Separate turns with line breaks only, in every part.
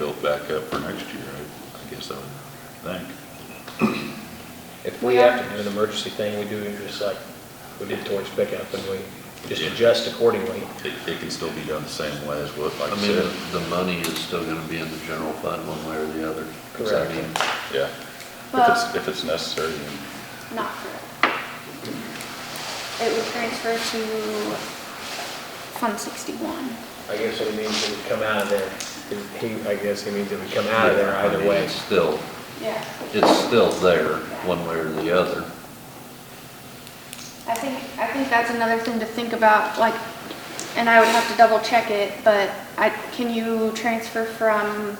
it back up for next year, I, I guess I would think.
If we have to do an emergency thing, we do it just like we did towards pickup, and we just
Yeah.
adjust accordingly.
It, it can still be done the same way as what, like
I
I
mean,
said.
the money is still gonna be in the general fund one way or the other. So, I
Correct.
mean,
Yeah, if it's,
Well,
if it's necessary, then
not correct. It would transfer to Fund 61.
I guess it means it would come out of there. He, I guess he means it would come out of there
I
either
mean,
way.
It's still,
Yeah.
it's still there, one way or the other.
I think, I think that's another thing to think about, like, and I would have to double check it, but I, can you transfer from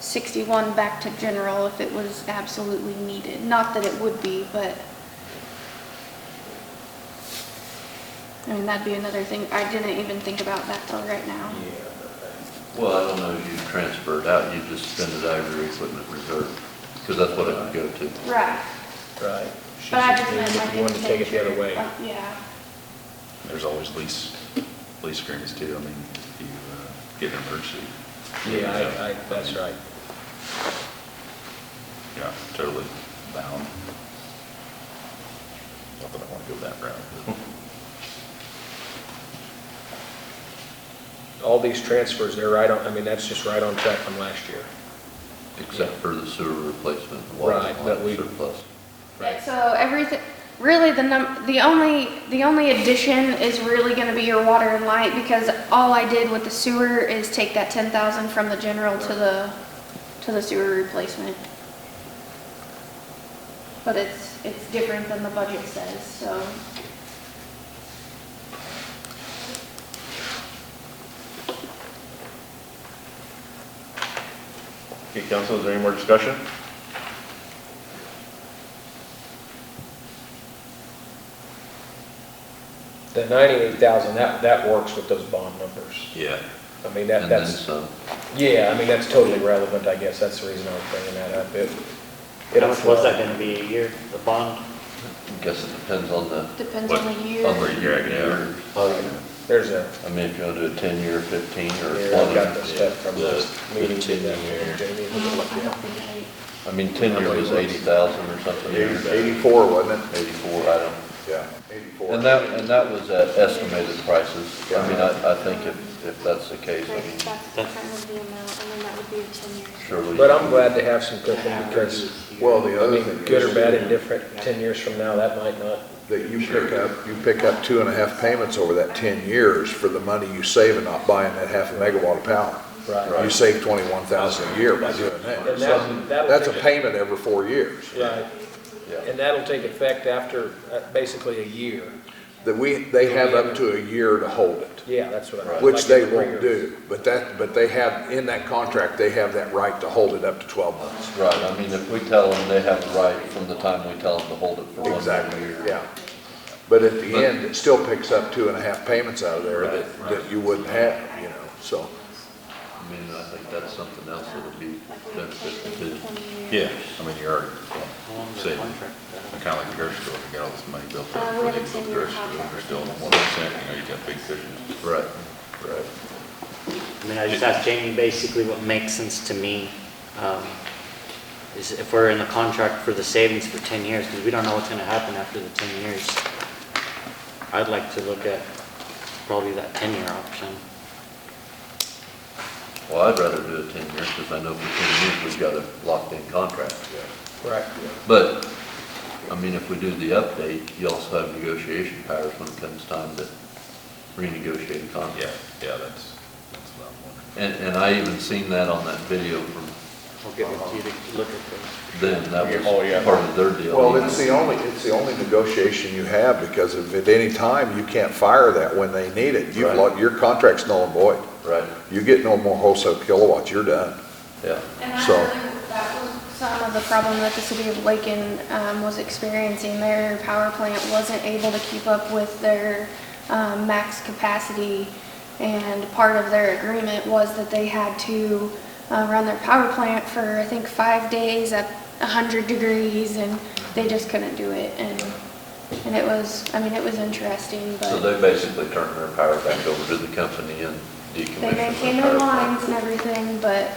61 back to general if it was absolutely needed? Not that it would be, but, I mean, that'd be another thing, I didn't even think about that till right now.
Yeah.
Well, I don't know if you transfer it out, you just spend it out of your equipment reserve, because that's what it would go to.
Right.
Right.
But I just meant like.
If you wanted to take it the other way.
Uh, Yeah,
there's always lease, lease agreements too. I mean, if you uh, get an emergency.
Yeah, I, I, that's right.
Yeah, totally bound. Not that I want to go that route, but.
All these transfers, they're right on, I mean, that's just right on track from last year.
except for the sewer replacement, the water
Right, but we-
line surplus.
Right.
so everything, really, the num, the only, the only addition is really gonna be your water and light, because all I did with the sewer is take that ten thousand from the general to the, to the sewer replacement. But it's, it's different than the budget says, so.
Okay, council, is there any more discussion?
The ninety-eight thousand, that, that works with those bond numbers.
Yeah.
I mean, that,
And then
that's,
some.
yeah, I mean, that's totally relevant, I guess. That's the reason I was bringing that up. It,
How
it'll
much was
flow.
that gonna be a year, the bond?
I guess it depends on the,
Depends
What-
on the year.
on the
Yeah, yeah.
year.
Oh, There's a,
I mean, if you want to do a ten-year, fifteen, or
here, I've got the
twenty.
stuff from this
The-
meeting.
the 10
that
year.
Jamie,
I don't- I
yeah.
don't think
I mean, ten-year was eighty thousand or something.
Eighty-four, wasn't it?
Eighty-four, I don't.
Yeah, eighty-four.
And that, and that was at estimated prices. I mean, I, I think if, if that's the case, I
Right,
mean,
that's kind of the amount, and then that would be a ten years.
surely.
But I'm glad to have some cooking because,
Well, the
I
other
mean,
thing
good or
is-
bad and different, ten years from now, that might not.
That you pick up, you pick up two and a half payments over that ten years for the money you save and not buying that half a megawatt of power. You save twenty-one thousand a year by doing
And
that.
that- that'll
That's a
take
payment every four years.
Right, and that'll take effect after uh, basically a year.
That we, they have up to a year to hold it,
Yeah, that's what I.
which
like
they
three years.
won't do. But that, but they have, in that contract, they have that right to hold it up to twelve months.
Right, I mean, if we tell them, they have a right from the time we tell them to hold it for one year.
Exactly, yeah. But at the end, it still picks up two and a half payments out of there that, that you wouldn't have, you know, so.
I mean, I think that's something else that would be
Like we
beneficial
have
too.
twenty years.
Yeah, I mean, you're already,
How long is the
saving.
contract?
kind of like the grocery store, they got all this money built
Uh,
up.
we
before
have a
they built the
10-year
grocery store,
contract.
They're still on one percent, you know, you got big cushions.
Right, right.
I mean, I just asked Jamie basically what makes sense to me, um, is if we're in the contract for the savings for ten years, because we don't know what's gonna happen after the ten years. I'd like to look at probably that ten-year option.
Well, I'd rather do a ten years, because I know for ten years, we've got a locked-in contract.
Right,
But, I mean, if we do the update, you also have negotiation powers when it comes time to renegotiate a contract.
Yeah, yeah, that's, that's what I'm wondering.
And, and I even seen that on that video from
I'll get with you to look at those.
them, that
Oh, yeah.
was part of their deal.
Well, it's the only, it's the only negotiation you have because if at any time you can't fire that when they need it, you've,
Right.
lo- your contract's null and void.
Right,
You get no more wholesale kilowatts, you're done.
yeah.
And I
So-
really, that was some of the problem that the city of Lakin um, was experiencing. Their power plant wasn't able to keep up with their um, max capacity. And part of their agreement was that they had to uh, run their power plant for, I think, five days at 100 degrees, and they just couldn't do it. And, and it was, I mean, it was interesting,
So
but
they basically turned their power back over to the company and
they
decommissioned
maintained
their
their
power plant.
lines and everything, but